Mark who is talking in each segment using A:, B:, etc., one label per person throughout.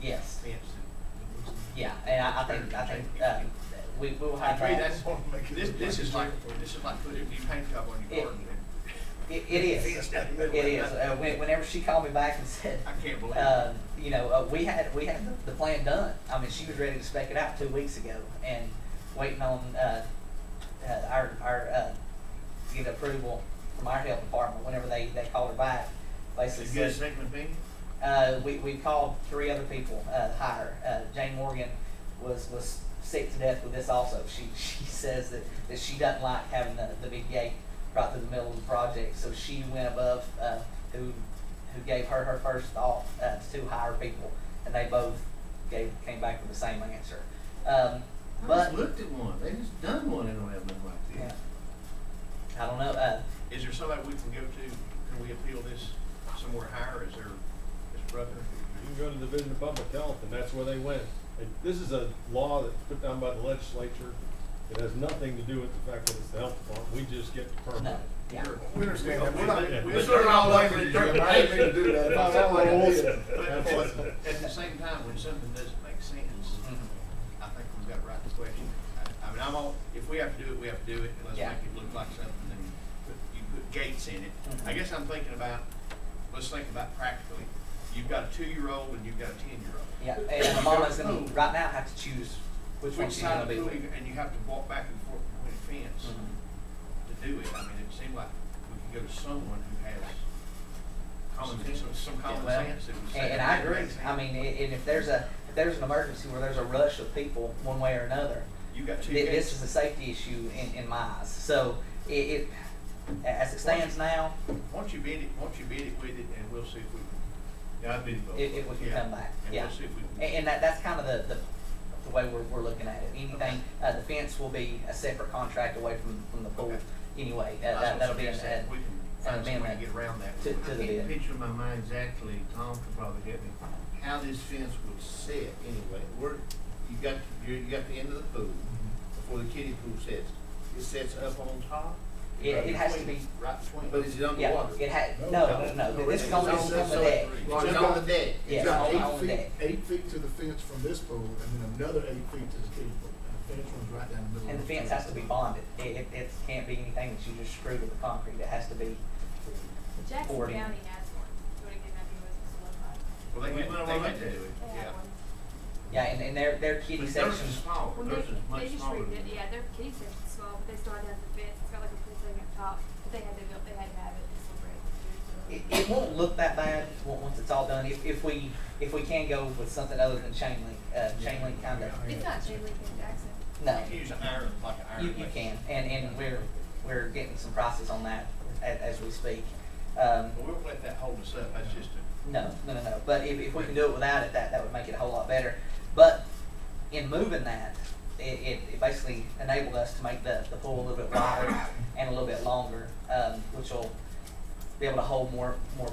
A: Yes,
B: Yes.
A: yeah, and I, I think, I think, uh, we, we will
C: I
A: have uh,
C: agree,
A: that.
C: that's, this, this is like, this is like putting new paint job on your
A: It-
C: garden.
A: It, it is,
C: Fenced out the
A: it
C: middle.
A: is, uh, when- whenever she called me back and said,
C: I can't believe it.
A: uh, you know, uh, we had, we had the, the plan done. I mean, she was ready to spec it out two weeks ago and waiting on, uh, uh, our, our, uh, to get approval from our health department whenever they, they called her back. Basically
C: Did you get a
A: said,
C: second opinion?
A: Uh, we, we called three other people, uh, higher. Uh, Jane Morgan was, was sick to death with this also. She, she says that, that she doesn't like having the, the big gate right through the middle of the project. So she went above, uh, who, who gave her her first thought, uh, to two higher people. And they both gave, came back with the same answer. Um,
D: I just
A: but,
D: looked at one. They just done one and don't have nothing like
A: yeah.
D: this.
A: I don't know, uh,
C: Is there somebody we can go to, can we appeal this somewhere higher, is there, is brother?
E: You can go to the Division of Public Health, and that's where they went. And This is a law that's put down by the legislature. It has nothing to do with the fact that it's the health department. We just get the permit.
A: no, yeah.
F: We understand that, we're not,
C: Yeah.
F: we're sort of not blaming you, and I didn't mean to do that, That's not what I did.
C: But at
E: That's
C: the-
E: it.
C: at the same time, when something doesn't make sense,
A: Mhm.
C: I think we've got right to question. it. I, I mean, I'm all, if we have to do it, we have to do it, and let's
A: Yeah.
C: make it look like something, and put, you put gates in it.
A: Mhm.
C: I guess I'm thinking about, let's think about practically, you've got a two-year-old and you've got a ten-year-old.
A: Yeah, and Mama's gonna, right now, have to choose which one
C: Which
A: she's
C: side
A: gonna
C: of
A: be
C: the
A: with.
C: building, and you have to walk back and forth between a fence
A: Mhm.
C: to do it, I mean, it seemed like we could go to someone who has common sense, some- some common
A: Well,
C: sense that would say.
A: And, and
C: that
A: I
C: that
A: agree.
C: makes
A: I
C: sense.
A: mean, i- and if there's a, if there's an emergency where there's a rush of people one way or another,
C: You got two
A: thi- this
C: gates.
A: is a safety issue in, in my eyes. So it, it, as it stands now,
C: Once you bid it, once you bid it with it, and we'll see if we can. Yeah, I bid it both.
A: it, it, we can
C: Yeah.
A: come back,
C: And
A: yeah.
C: we'll see if we
A: And,
C: can.
A: and that, that's kind of the, the, the way we're, we're looking at it. Anything, uh, the fence will be a separate contract away from, from the pool
C: Okay.
A: anyway. Uh,
C: I
A: That,
C: was gonna
A: that'll be an,
C: suggest
A: an
C: that We can
A: an
C: find some way to
A: amendment
C: get around that.
A: to,
C: one.
A: to the
D: I can't
A: bid.
D: picture in my mind exactly, Tom could probably help me, how this fence would sit anyway. Where, you got, you you got the end of the pool, before the kiddie pool sets. It sets up on top,
A: It, it has to be,
C: Right between.
D: but is it
A: yeah,
D: underwater?
A: it had, no, no, no, this is on, this is on the deck.
D: Well, it's on the deck.
A: Yeah.
F: It's
D: It's on-
F: got
A: all- all
F: eight feet,
A: day.
F: eight feet to the fence from this pool, and then another eight feet to the kiddie pool, and the fence runs right down the middle.
A: And the
F: of
A: fence has to be bonded. It, it, it can't be anything that you just screw with the concrete. It has to be,
G: Jackson
A: Forty.
G: County has one. Do you want to give that to us? It's a little high.
C: Well, they had,
D: We went
C: they
D: along
C: had
D: with
C: to
D: that.
C: do it,
G: They have
C: yeah.
G: one.
A: yeah, and, and their, their
D: But
A: kitty
D: those
A: section,
D: are small,
G: Well,
D: those
G: they,
D: are much
G: they just
D: smaller. than-
G: redid, yeah, their kitty section's small, but they started out the fence. It's got like a pool thing up top, but they had to build, they had to have it. It's so
A: it,
G: great.
A: it won't look that bad on- once it's all done. If, if we, if we can go with something other than chain link, uh, chain link kind of,
G: It's not chain link in Jackson.
A: no.
C: You can use an iron, like an iron.
A: You, you
C: fence.
A: can, and, and we're, we're getting some prices on that as, as we speak. Um,
C: But we won't let that hold us up, that's just a,
A: No, no, no, no. But if, if we can do it without it, that, that would make it a whole lot better. But in moving that, it, it, it basically enabled us to make the, the pool a little bit wider and a little bit longer, um, which will be able to hold more, more,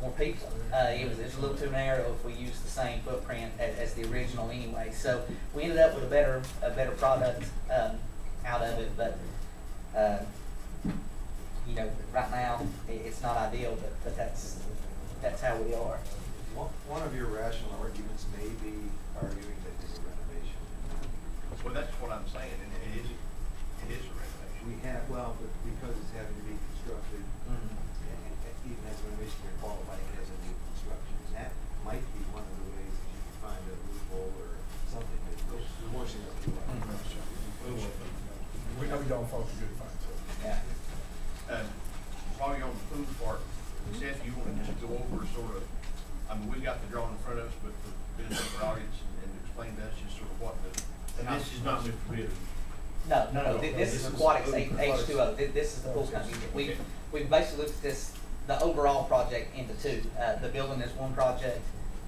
A: more people. Uh, it was, it's a little too narrow if we use the same footprint as, as the original anyway. So we ended up with a better, a better product, um, out of it, but, uh, you know, right now, i it's not ideal, but, but that's, that's how we are.
H: One, one of your rational arguments may be arguing that it's a renovation.
C: well, that's what I'm saying, and it is, it is a renovation.
H: We have, well, but because it's having to be constructed,
A: Mm-hmm.
H: and, and even as a renovation, you're qualifying it as a new construction. And that might be one of the ways that you can find a loophole or something that will wash it up.
C: Mm-hmm.
F: We know we don't fault the good fence, so.
A: Yeah.
C: Um, while you're on the food part, Seth, you wanna just go over sort of, I mean, we've got the drawing in front of us, but for the benefit of the audience, and and explain to us just sort of what the.
D: And this is not Mr. Bitter.
A: No, no, no,
H: No,
A: thi-
H: no,
A: this is
H: this is
A: Aquatics
H: food
A: H
H: products.
A: two O, this is the pool company. We,
C: Okay.
A: we basically looked at this, the overall project into two. Uh, the building is one project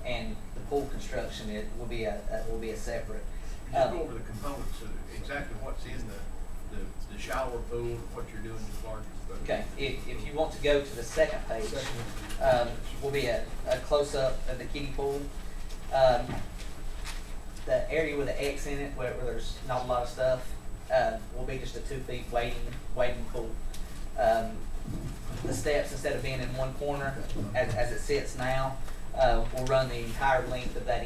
A: and the pool construction, it will be a, uh, will be a separate.
C: Just
A: Um,
C: go over the components of exactly what's in the, the, the shower pool, and what you're doing to the larger. pool.
A: Okay, if, if you want to go to the second page,
F: Second
A: um,
F: one.
A: will be a, a close-up of the kiddie pool. Um, the area with the X in it, where, where there's not a lot of stuff, uh, will be just a two-feet waiting, waiting pool. Um, the steps, instead of being in one corner, as, as it sits now, uh, will run the entire length of that